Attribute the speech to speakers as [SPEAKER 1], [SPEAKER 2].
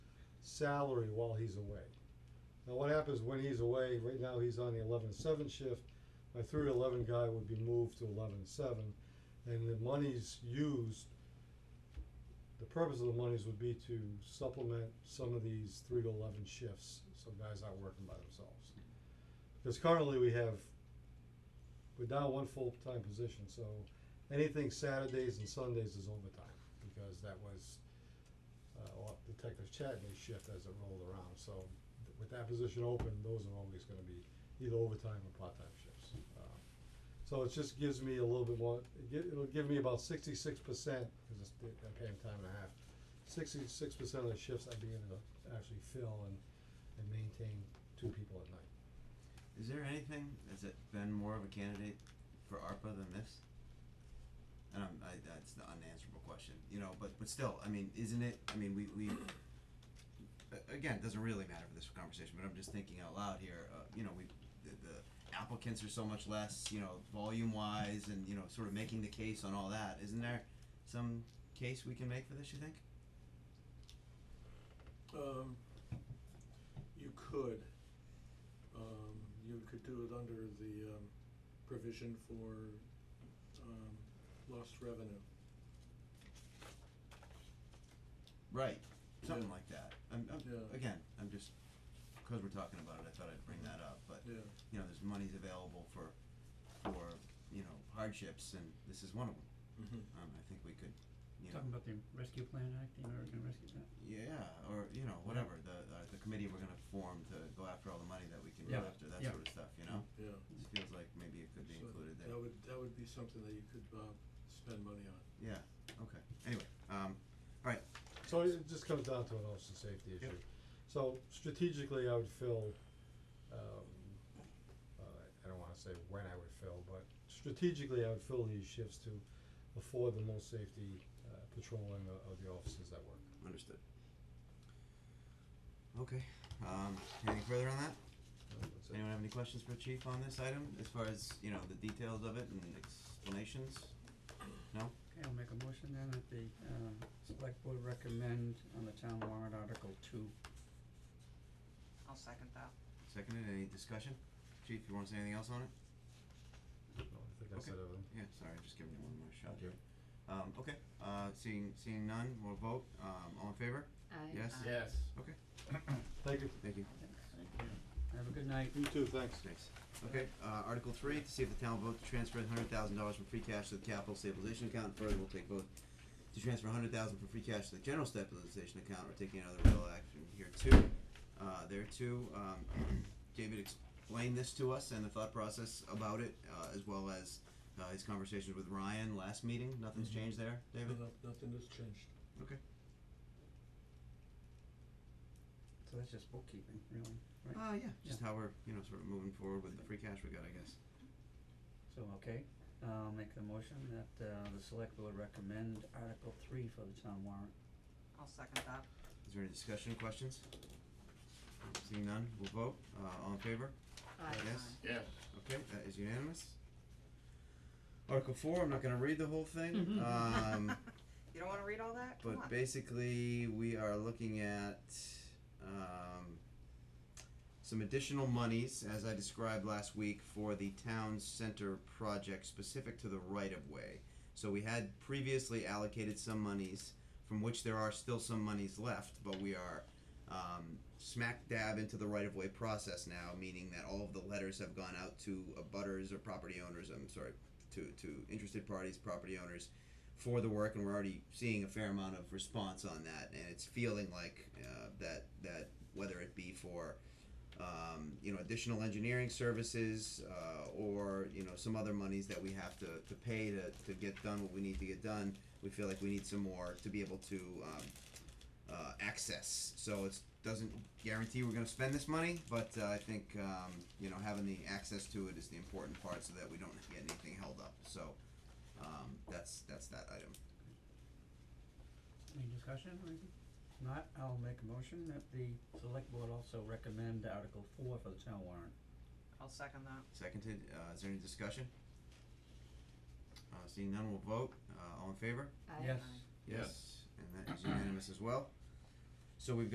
[SPEAKER 1] salary while he's away. Now, what happens when he's away, right now he's on the eleven seven shift, my three eleven guy would be moved to eleven seven, and the monies used, the purpose of the monies would be to supplement some of these three to eleven shifts, so guys aren't working by themselves. Because currently we have, we're down one full-time position, so anything Saturdays and Sundays is overtime, because that was uh, or Detective Chatney's shift as it rolled around, so th- with that position open, those are always gonna be either overtime or part-time shifts. Um, So it just gives me a little bit more, it gi- it'll give me about sixty-six percent, cause it's, they- I pay 'em time and a half, sixty-six percent of the shifts I'd be able to actually fill and, and maintain two people at night.
[SPEAKER 2] Is there anything that's it been more of a candidate for ARPA than this? And I'm, I, that's the unanswerable question, you know, but, but still, I mean, isn't it, I mean, we, we, a- again, it doesn't really matter for this conversation, but I'm just thinking out loud here, uh, you know, we, the, the applicants are so much less, you know, volume wise and, you know, sort of making the case on all that, isn't there some case we can make for this, you think?
[SPEAKER 3] Um, you could, um, you could do it under the, um, provision for, um, lost revenue.
[SPEAKER 2] Right, something
[SPEAKER 3] Yeah.
[SPEAKER 2] like that, I'm,
[SPEAKER 3] Yeah.
[SPEAKER 2] I'm, again, I'm just, cause we're talking about it, I thought I'd bring that up, but
[SPEAKER 3] Yeah,
[SPEAKER 2] you know, there's monies available for, for, you know, hardships, and this is one of them.
[SPEAKER 3] mhm,
[SPEAKER 2] Um, I think we could, you know,
[SPEAKER 4] Talking about the Rescue Plan Act, the American Rescue Plan.
[SPEAKER 2] yeah, or, you know, whatever, the, uh, the committee we're gonna form to go after all the money that we can go
[SPEAKER 4] Yeah,
[SPEAKER 2] after, that
[SPEAKER 4] yeah.
[SPEAKER 2] sort
[SPEAKER 4] Mm-hmm.
[SPEAKER 2] of stuff, you know?
[SPEAKER 3] yeah.
[SPEAKER 2] It feels like maybe it could be
[SPEAKER 3] So
[SPEAKER 2] included there.
[SPEAKER 3] That would, that would be something that you could, uh, spend money on.
[SPEAKER 2] Yeah, okay, anyway, um, alright,
[SPEAKER 1] So it just comes down to an officer safety issue.
[SPEAKER 2] Yep.
[SPEAKER 1] So strategically, I would fill, um, uh, I don't wanna say when I would fill, but strategically, I would fill these shifts to afford the most safety, uh, patrolling of, of the officers that work.
[SPEAKER 2] understood. Okay, um, anything further on that?
[SPEAKER 1] That's it.
[SPEAKER 2] Anyone have any questions for Chief on this item, as far as, you know, the details of it and explanations?
[SPEAKER 4] Okay, I'll make a motion then that the um select board recommend on the town warrant article two.
[SPEAKER 5] I'll second that.
[SPEAKER 2] Seconded, any discussion? Chief, you wanna say anything else on it?
[SPEAKER 1] No, I think I said everything.
[SPEAKER 2] Yeah, sorry, just giving you one more shot here. Um, okay, uh, seeing, seeing none, we'll vote, um, all in favor? Yes?
[SPEAKER 5] Aye. Yes.
[SPEAKER 2] Okay,
[SPEAKER 1] Thank you.
[SPEAKER 2] thank you.
[SPEAKER 4] Thank you. Have a good night.
[SPEAKER 1] You too, thanks.
[SPEAKER 2] Thanks. Okay, uh, Article three, to see if the town will vote to transfer hundred thousand dollars from free cash to the capital stabilization account, further we'll take vote to transfer hundred thousand from free cash to the general stabilization account, we're taking another real action here too. Uh, there too, um, David explained this to us and the thought process about it, uh, as well as, uh, his conversations with Ryan last meeting, nothing's
[SPEAKER 3] Mhm.
[SPEAKER 2] changed there, David?
[SPEAKER 3] No, Nothing has changed.
[SPEAKER 2] Okay.
[SPEAKER 4] So that's just bookkeeping, really, right?
[SPEAKER 2] Uh, yeah, just how we're, you know, sort of moving forward with the free cash we got, I guess.
[SPEAKER 4] So, okay, I'll make the motion that uh the select board recommend article three for the town warrant.
[SPEAKER 5] I'll second that.
[SPEAKER 2] Is there any discussion, questions? Seeing none, we'll vote, uh, all in favor? Yes?
[SPEAKER 3] Yes.
[SPEAKER 2] Okay, that is unanimous. Article four, I'm not gonna read the whole thing, um,
[SPEAKER 5] You don't wanna read all that? Come
[SPEAKER 2] but
[SPEAKER 5] on.
[SPEAKER 2] basically, we are looking at, um, some additional monies, as I described last week, for the town center project specific to the right of way. So we had previously allocated some monies, from which there are still some monies left, but we are um, smack dab into the right of way process now, meaning that all of the letters have gone out to abutters or property owners. I'm sorry, to to interested parties, property owners, for the work, and we're already seeing a fair amount of response on that, and it's feeling like uh, that that whether it be for um, you know additional engineering services uh, or you know some other monies that we have to, to pay to, to get done what we need to get done we feel like we need some more to be able to um, uh, access so it doesn't guarantee we're going to spend this money but uh, i think um, you know having the access to it is the important part so that we don't get anything held up so um, that's that's that item
[SPEAKER 4] Any discussion or anything? Not, I'll make a motion that the select board also recommend article four for the town warrant.
[SPEAKER 5] I'll second that.
[SPEAKER 2] seconded uh, is there any discussion uh, seeing none we'll vote uh, all in favor
[SPEAKER 4] Yes.
[SPEAKER 5] Aye.
[SPEAKER 2] Yes. And that is unanimous as well. So we've got